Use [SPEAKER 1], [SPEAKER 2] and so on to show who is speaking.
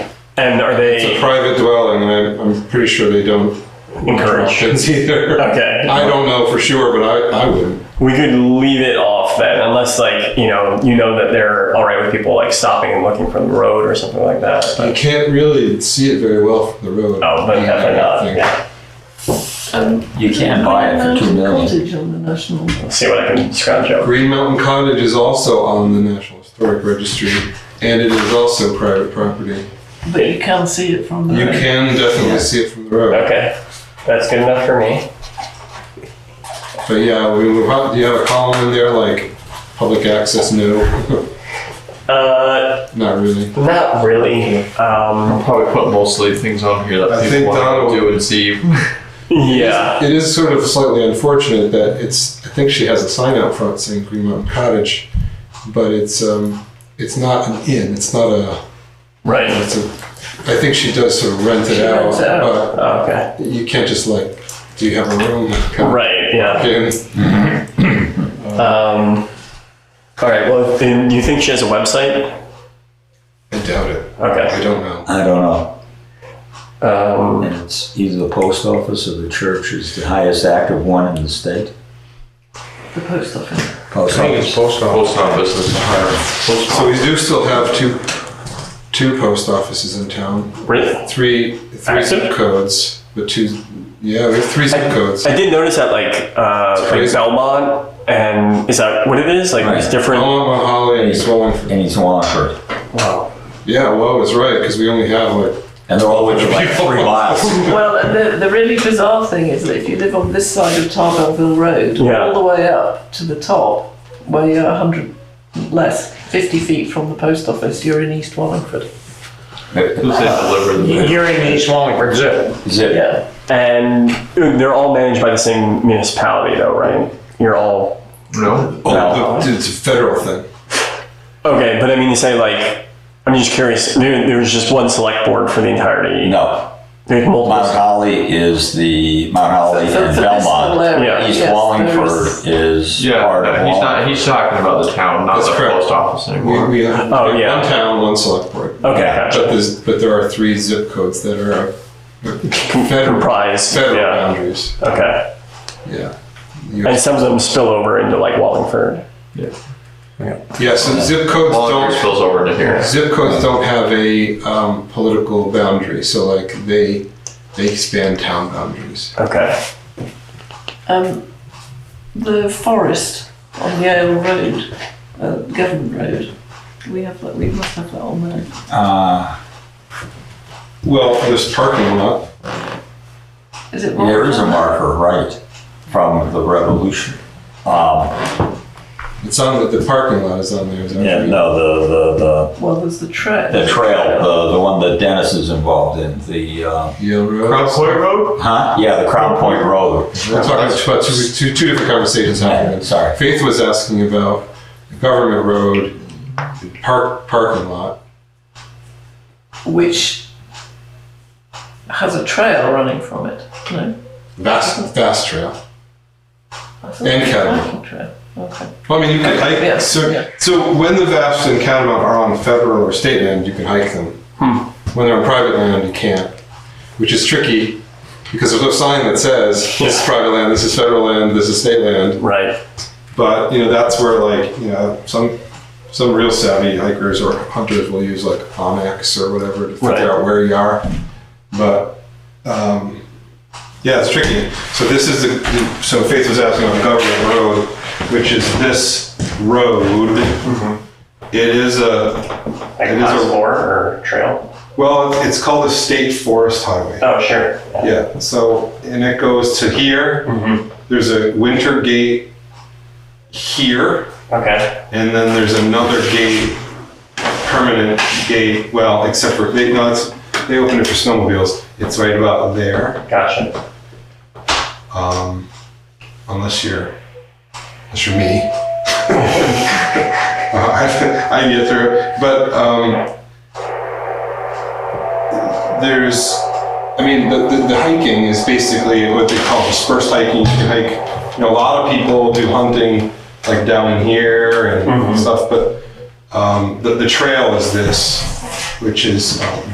[SPEAKER 1] And are
[SPEAKER 2] It's a
[SPEAKER 1] they
[SPEAKER 2] private dwelling, and I'm, I'm pretty sure they don't allow
[SPEAKER 1] encouraged?
[SPEAKER 2] kids either.
[SPEAKER 1] Okay.
[SPEAKER 2] I don't know for sure, but I, I wouldn't.
[SPEAKER 1] We could leave it off then, unless like you know you know that they're all right with people like stopping and looking from the road or something like that.
[SPEAKER 2] You
[SPEAKER 1] But,
[SPEAKER 2] can't really see it very well from the road.
[SPEAKER 1] oh, but
[SPEAKER 2] Yeah,
[SPEAKER 1] definitely
[SPEAKER 2] I
[SPEAKER 1] not.
[SPEAKER 2] think.
[SPEAKER 1] Yeah.
[SPEAKER 3] And you can buy it for two million.
[SPEAKER 4] Cottage on the national.
[SPEAKER 1] Let's see what I can scrounge up.
[SPEAKER 2] Green Mountain Cottage is also on the National Historic Registry, and it is also private property.
[SPEAKER 4] But you can't see it from the
[SPEAKER 2] You
[SPEAKER 4] road.
[SPEAKER 2] can definitely see it from the road.
[SPEAKER 1] Okay, that's good enough for me.
[SPEAKER 2] But yeah, we move up. Do you have a column in there like public access? No,
[SPEAKER 1] Uh,
[SPEAKER 2] not really.
[SPEAKER 1] not really. Um,
[SPEAKER 5] I'll probably put mostly things on here
[SPEAKER 2] I
[SPEAKER 5] that
[SPEAKER 2] think
[SPEAKER 5] people want
[SPEAKER 2] Donna
[SPEAKER 5] to do and see.
[SPEAKER 1] yeah.
[SPEAKER 2] It is sort of slightly unfortunate that it's. I think she has a sign out front saying Green Mountain Cottage, but it's um, it's not an inn. It's not a.
[SPEAKER 1] Right.
[SPEAKER 2] It's a. I think she does sort of rent it
[SPEAKER 4] She
[SPEAKER 2] out,
[SPEAKER 4] rents it out.
[SPEAKER 1] Okay.
[SPEAKER 2] but you can't just like, do you have a room? Come
[SPEAKER 1] Right. Yeah.
[SPEAKER 2] in.
[SPEAKER 1] Um, all right. Well, then you think she has a website?
[SPEAKER 2] I doubt it.
[SPEAKER 1] Okay.
[SPEAKER 2] I don't know.
[SPEAKER 3] I don't know.
[SPEAKER 1] Um,
[SPEAKER 3] And it's either the post office or the church is the highest active one in the state.
[SPEAKER 4] The post office.
[SPEAKER 3] Post office.
[SPEAKER 2] post
[SPEAKER 5] Post office is higher.
[SPEAKER 2] So we do still have two, two post offices in town.
[SPEAKER 1] really?
[SPEAKER 2] three three
[SPEAKER 1] Active?
[SPEAKER 2] zip codes, but two. Yeah, we have three zip codes.
[SPEAKER 1] I did notice that, like, uh, like
[SPEAKER 2] crazy.
[SPEAKER 1] Belmont, and is that what it is? Like, it's
[SPEAKER 3] Right.
[SPEAKER 1] different.
[SPEAKER 2] Belmont, Mount Holly, and Swallowford.
[SPEAKER 3] And it's Wallingford.
[SPEAKER 1] Wow.
[SPEAKER 2] Yeah, well, it's right because we only have like.
[SPEAKER 3] And they're all within like three miles.
[SPEAKER 4] Well, the, the really bizarre thing is that if you live on this side of Tarbellville Road,
[SPEAKER 1] Yeah.
[SPEAKER 4] all the way up to the top, where you're 100 less, 50 feet from the post office, you're in East Wallingford.
[SPEAKER 5] Who's that deliver the
[SPEAKER 6] You're in East Wallingford Zoo.
[SPEAKER 3] Is it?
[SPEAKER 4] Yeah.
[SPEAKER 1] And they're all managed by the same municipality, though, right? You're all
[SPEAKER 5] No.
[SPEAKER 2] Oh, the- it's a federal thing.
[SPEAKER 1] okay, but I mean, you say like. I'm just curious. There, there was just one select board for the entirety.
[SPEAKER 3] No.
[SPEAKER 1] There's
[SPEAKER 3] Mount
[SPEAKER 1] multiple.
[SPEAKER 3] Holly is the, Mount Holly
[SPEAKER 4] So
[SPEAKER 3] and
[SPEAKER 4] for this little
[SPEAKER 3] Belmont.
[SPEAKER 4] area,
[SPEAKER 1] Yeah.
[SPEAKER 3] East
[SPEAKER 4] yes, there
[SPEAKER 3] Wallingford
[SPEAKER 4] is-
[SPEAKER 3] is
[SPEAKER 5] Yeah,
[SPEAKER 3] part of
[SPEAKER 5] no, he's not.
[SPEAKER 3] Wallingford.
[SPEAKER 5] He's talking about the town, not
[SPEAKER 2] That's
[SPEAKER 5] the
[SPEAKER 2] correct.
[SPEAKER 5] post office
[SPEAKER 2] We,
[SPEAKER 5] anymore.
[SPEAKER 2] we have
[SPEAKER 1] Oh, yeah.
[SPEAKER 2] one town, one select board.
[SPEAKER 1] Okay,
[SPEAKER 3] Yeah.
[SPEAKER 2] But
[SPEAKER 1] gotcha.
[SPEAKER 2] there's but there are three zip codes that are uh, federal
[SPEAKER 1] Comprised.
[SPEAKER 2] federal
[SPEAKER 1] Yeah.
[SPEAKER 2] boundaries.
[SPEAKER 1] Okay.
[SPEAKER 2] Yeah.
[SPEAKER 1] And some of them spill over into like Wallingford.
[SPEAKER 2] Yeah. So zip codes
[SPEAKER 5] Wallingford
[SPEAKER 2] don't
[SPEAKER 5] spills over into here.
[SPEAKER 2] zip codes don't have a um, political boundary. So like they they span town boundaries.
[SPEAKER 1] Okay.
[SPEAKER 4] Um, the forest on Yale Road, uh, Government Road, we have that, we must have that on there.
[SPEAKER 3] Uh,
[SPEAKER 2] Well, there's parking lot.
[SPEAKER 4] Is it
[SPEAKER 3] there is a
[SPEAKER 4] marked
[SPEAKER 3] marker, right, from the revolution. Um,
[SPEAKER 2] It's on the, the parking lot is on there. Is that
[SPEAKER 3] yeah,
[SPEAKER 2] right?
[SPEAKER 3] no, the, the, the
[SPEAKER 4] on- Well, there's the trail.
[SPEAKER 3] The trail, the, the one that Dennis is involved in, the, uh,
[SPEAKER 2] Yale Road.
[SPEAKER 5] Crown Point Road.
[SPEAKER 3] huh? Yeah, the Crown Point Road.
[SPEAKER 2] We're talking about two, two, two different conversations happening.
[SPEAKER 3] Sorry.
[SPEAKER 2] Faith was asking about the government road, the park parking lot.
[SPEAKER 4] Which has a trail running from it. No?
[SPEAKER 2] Vast vast trail.
[SPEAKER 4] That's
[SPEAKER 2] And
[SPEAKER 4] a
[SPEAKER 2] Cadman.
[SPEAKER 4] hiking trail. Okay.
[SPEAKER 2] Well, I mean, you can hike.
[SPEAKER 4] Yeah,
[SPEAKER 2] so,
[SPEAKER 4] yeah.
[SPEAKER 2] so when the vast and catamount are on federal or state land, you can hike them.
[SPEAKER 4] Hmm.
[SPEAKER 2] When they're on private land, you can't, which is tricky because there's no sign that says this is private land, this is federal land, this is state land.
[SPEAKER 1] Right.
[SPEAKER 2] But you know, that's where like you know some some real savvy hikers or hunters will use like Onyx or whatever to figure
[SPEAKER 1] Right.
[SPEAKER 2] out where you are. But um, yeah, it's tricky. So this is the so Faith was asking on Government Road, which is this road. It is a
[SPEAKER 1] Like
[SPEAKER 2] It is a-
[SPEAKER 1] lore or trail.
[SPEAKER 2] well, it's called a state forest highway.
[SPEAKER 1] Oh, sure.
[SPEAKER 2] Yeah, so, and it goes to here.
[SPEAKER 1] Mm-hmm.
[SPEAKER 2] There's a winter gate here.
[SPEAKER 1] Okay.
[SPEAKER 2] And then there's another gate, permanent gate, well, except for, they, no, it's, they opened it for snowmobiles. It's right about there,
[SPEAKER 1] Gotcha.
[SPEAKER 2] um, unless you're, unless you're me. Uh, I, I get through, it. but, um, there's, I mean, the, the, the hiking is basically what they call dispersed hiking. You can hike, you know, a lot of people do hunting like down here and stuff, but um, the, the trail is this, which is um,